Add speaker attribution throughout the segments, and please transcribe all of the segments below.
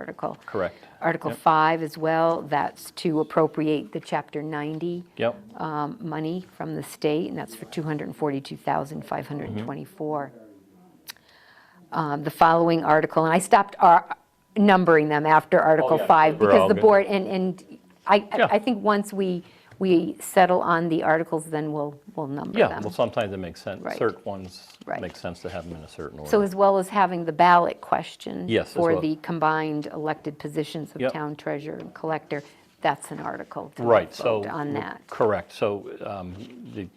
Speaker 1: article.
Speaker 2: Correct.
Speaker 1: Article
Speaker 2: Yep.
Speaker 1: 5 as well, that's to appropriate the Chapter 90
Speaker 2: Yep,
Speaker 1: um, money from the state, and that's for
Speaker 2: Mm-hmm.
Speaker 1: 242,524. Um, The following article, and I stopped ar- numbering them after Article
Speaker 2: Oh, yeah.
Speaker 1: 5,
Speaker 2: We're
Speaker 1: because
Speaker 2: all
Speaker 1: the
Speaker 2: good.
Speaker 1: board, and, and I,
Speaker 2: Yeah.
Speaker 1: I think once we, we settle on the articles, then we'll, we'll number them.
Speaker 2: yeah, well, sometimes it makes sense,
Speaker 1: Right.
Speaker 2: certain ones
Speaker 1: Right.
Speaker 2: make sense to have them in a certain order.
Speaker 1: So as well as having the ballot question.
Speaker 2: Yes, as
Speaker 1: For
Speaker 2: well.
Speaker 1: the combined elected positions of
Speaker 2: Yep.
Speaker 1: town treasurer and collector, that's an article to
Speaker 2: Right, so.
Speaker 1: vote on
Speaker 2: we're-
Speaker 1: that.
Speaker 2: Correct, so um, the-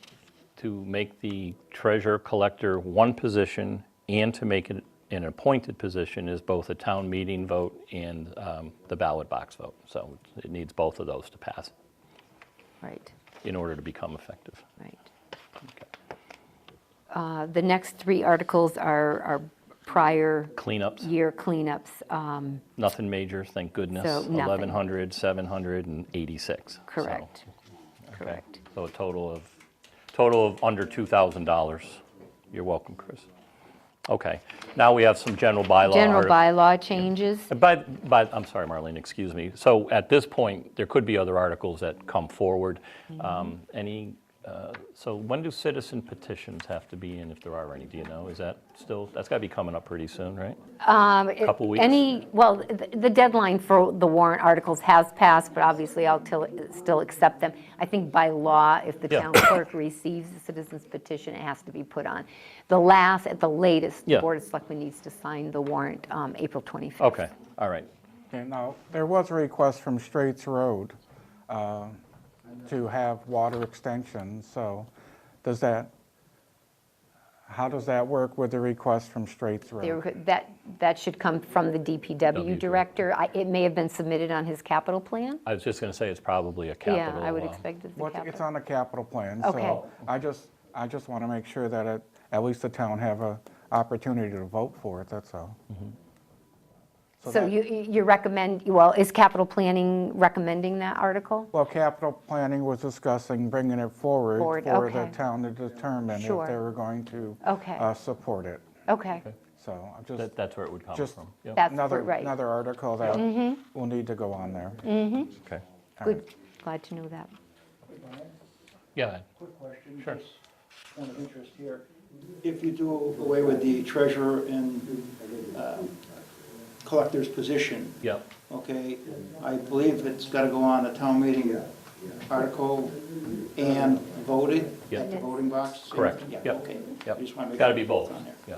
Speaker 2: to make the treasurer collector one position and to make it an appointed position is both a town meeting vote and um, the ballot box vote. So it needs both of those to pass
Speaker 1: Right,
Speaker 2: in order to become effective.
Speaker 1: right. Uh, The next three articles are are prior
Speaker 2: Cleanups,
Speaker 1: year cleanups, um,
Speaker 2: nothing major, thank goodness.
Speaker 1: So nothing.
Speaker 2: 1,100, 786. So,
Speaker 1: correct,
Speaker 2: okay.
Speaker 1: correct.
Speaker 2: So a total of, total of under $2,000. You're welcome, Chris. Okay, now we have some general bylaw.
Speaker 1: General
Speaker 2: articles.
Speaker 1: bylaw changes,
Speaker 2: And By, by, I'm sorry, Marlene, excuse me. So at this point, there could be other articles that come forward.
Speaker 1: Mm-hmm.
Speaker 2: Um, Any, uh, so when do citizen petitions have to be in, if there are any? Do you know? Is that still, that's got to be coming up pretty soon, right? Couple weeks?
Speaker 1: Um, Any, well, th- the deadline for the warrant articles has passed, but obviously I'll till- still accept them. I think by law, if the
Speaker 2: Yeah.
Speaker 1: town clerk receives a citizen's petition, it has to be put on. The last, at the latest, the
Speaker 2: Yeah.
Speaker 1: Board of Selectmen needs to sign the warrant um, April 25th.
Speaker 2: Okay, all right.
Speaker 3: Okay, now, there was a request from Straits Road uh, to have water extensions, so does that, how does that work with the request from Straits
Speaker 1: They
Speaker 3: Road?
Speaker 1: were- That, that should come from the DPW director. I- It may have been submitted on his capital plan.
Speaker 2: I was just going to say it's probably a
Speaker 1: Yeah,
Speaker 2: capital.
Speaker 1: I would
Speaker 2: uh,
Speaker 1: expect it's the
Speaker 3: What- It's
Speaker 1: capital.
Speaker 3: on the capital plan,
Speaker 1: Okay.
Speaker 3: so I just, I just want to make sure that it- at least the town have a opportunity to vote for it, that's all.
Speaker 1: So
Speaker 3: that-
Speaker 1: you, you recommend, well, is capital planning recommending that article?
Speaker 3: Well, capital planning was discussing bringing it forward
Speaker 1: Forward,
Speaker 3: for the
Speaker 1: okay.
Speaker 3: town to determine if
Speaker 1: Sure.
Speaker 3: they were going to
Speaker 1: Okay.
Speaker 3: uh, support it,
Speaker 1: Okay,
Speaker 3: so I'm just.
Speaker 2: that- That's where it would come
Speaker 3: Just-
Speaker 2: from. Yep,
Speaker 1: that's
Speaker 3: Another,
Speaker 1: right. Mm-hmm.
Speaker 3: another article that will need to go on there.
Speaker 2: Okay.
Speaker 1: Good, glad to know that.
Speaker 2: Yeah,
Speaker 4: Quick question.
Speaker 2: Sure.
Speaker 4: just Point of interest here. If you do away with the treasurer and um, collector's position,
Speaker 2: yeah.
Speaker 4: okay, I believe it's got to go on a town meeting article and voted at the
Speaker 2: Yeah.
Speaker 4: voting box?
Speaker 2: Correct.
Speaker 4: Yeah,
Speaker 2: Yep.
Speaker 4: okay.
Speaker 2: Yep.
Speaker 4: I just want to make.
Speaker 2: Got to be
Speaker 4: sure
Speaker 2: both.
Speaker 4: it's on there.
Speaker 2: Yeah,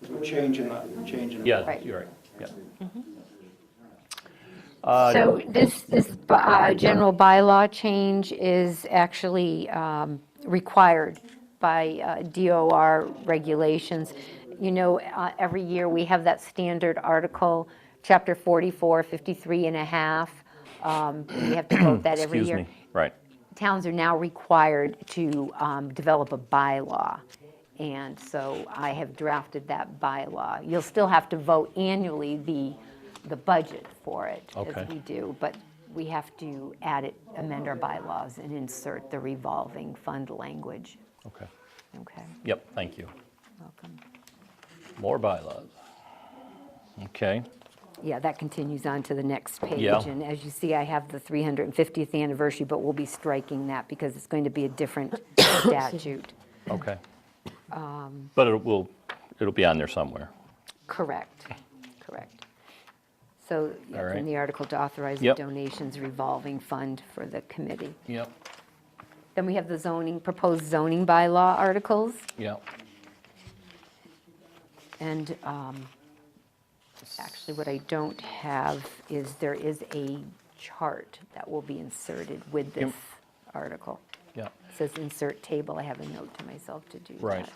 Speaker 4: 'Cause We're changing, the- changing. the-
Speaker 2: yeah,
Speaker 1: Right.
Speaker 2: you're right, yeah.
Speaker 1: So this, this uh, general bylaw change is actually um, required by uh, DOR regulations. You know, uh, every year, we have that standard article, Chapter 44, 53 and a half. Um, We have to vote that every
Speaker 2: Excuse
Speaker 1: year.
Speaker 2: me, right.
Speaker 1: Towns are now required to um, develop a bylaw, and so I have drafted that bylaw. You'll still have to vote annually the, the budget for it,
Speaker 2: Okay.
Speaker 1: as we do, but we have to add it, amend our bylaws and insert the revolving fund language.
Speaker 2: Okay,
Speaker 1: Okay,
Speaker 2: yep, thank you.
Speaker 1: welcome.
Speaker 2: More bylaws. Okay,
Speaker 1: Yeah, that continues on to the next page.
Speaker 2: Yeah.
Speaker 1: And as you see, I have the 350th anniversary, but we'll be striking that because it's going to be a different statute.
Speaker 2: okay.
Speaker 1: Um.
Speaker 2: But it will, it'll be on there somewhere.
Speaker 1: Correct, correct. So, yeah,
Speaker 2: All
Speaker 1: in
Speaker 2: right.
Speaker 1: the article to authorize the
Speaker 2: Yep.
Speaker 1: donations revolving fund for the committee.
Speaker 2: Yep,
Speaker 1: Then we have the zoning, proposed zoning bylaw articles,
Speaker 2: yep.
Speaker 1: and um, actually, what I don't have is there is a chart that will be inserted with this article.
Speaker 2: Yeah,
Speaker 1: It says insert table, I have a note to myself to do that.
Speaker 2: Right.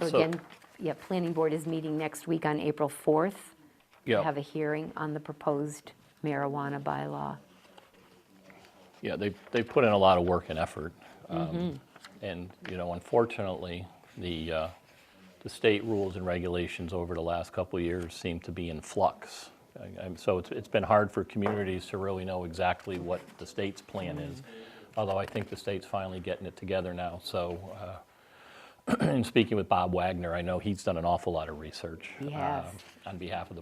Speaker 1: So
Speaker 2: So-
Speaker 1: again, yeah, Planning Board is meeting next week on April 4th.
Speaker 2: yeah.
Speaker 1: have a hearing on the proposed marijuana bylaw.
Speaker 2: Yeah, they, they put in a lot of work and effort. um, And, you know, unfortunately, the, uh, the state rules and regulations over the last couple of years seem to be in flux. I- I'm- So it's, it's been hard for communities to really know exactly what the state's plan is, although I think the state's finally getting it together now, so uh, in speaking with Bob Wagner, I know he's done an awful lot of research
Speaker 1: He has.
Speaker 2: um, on behalf of the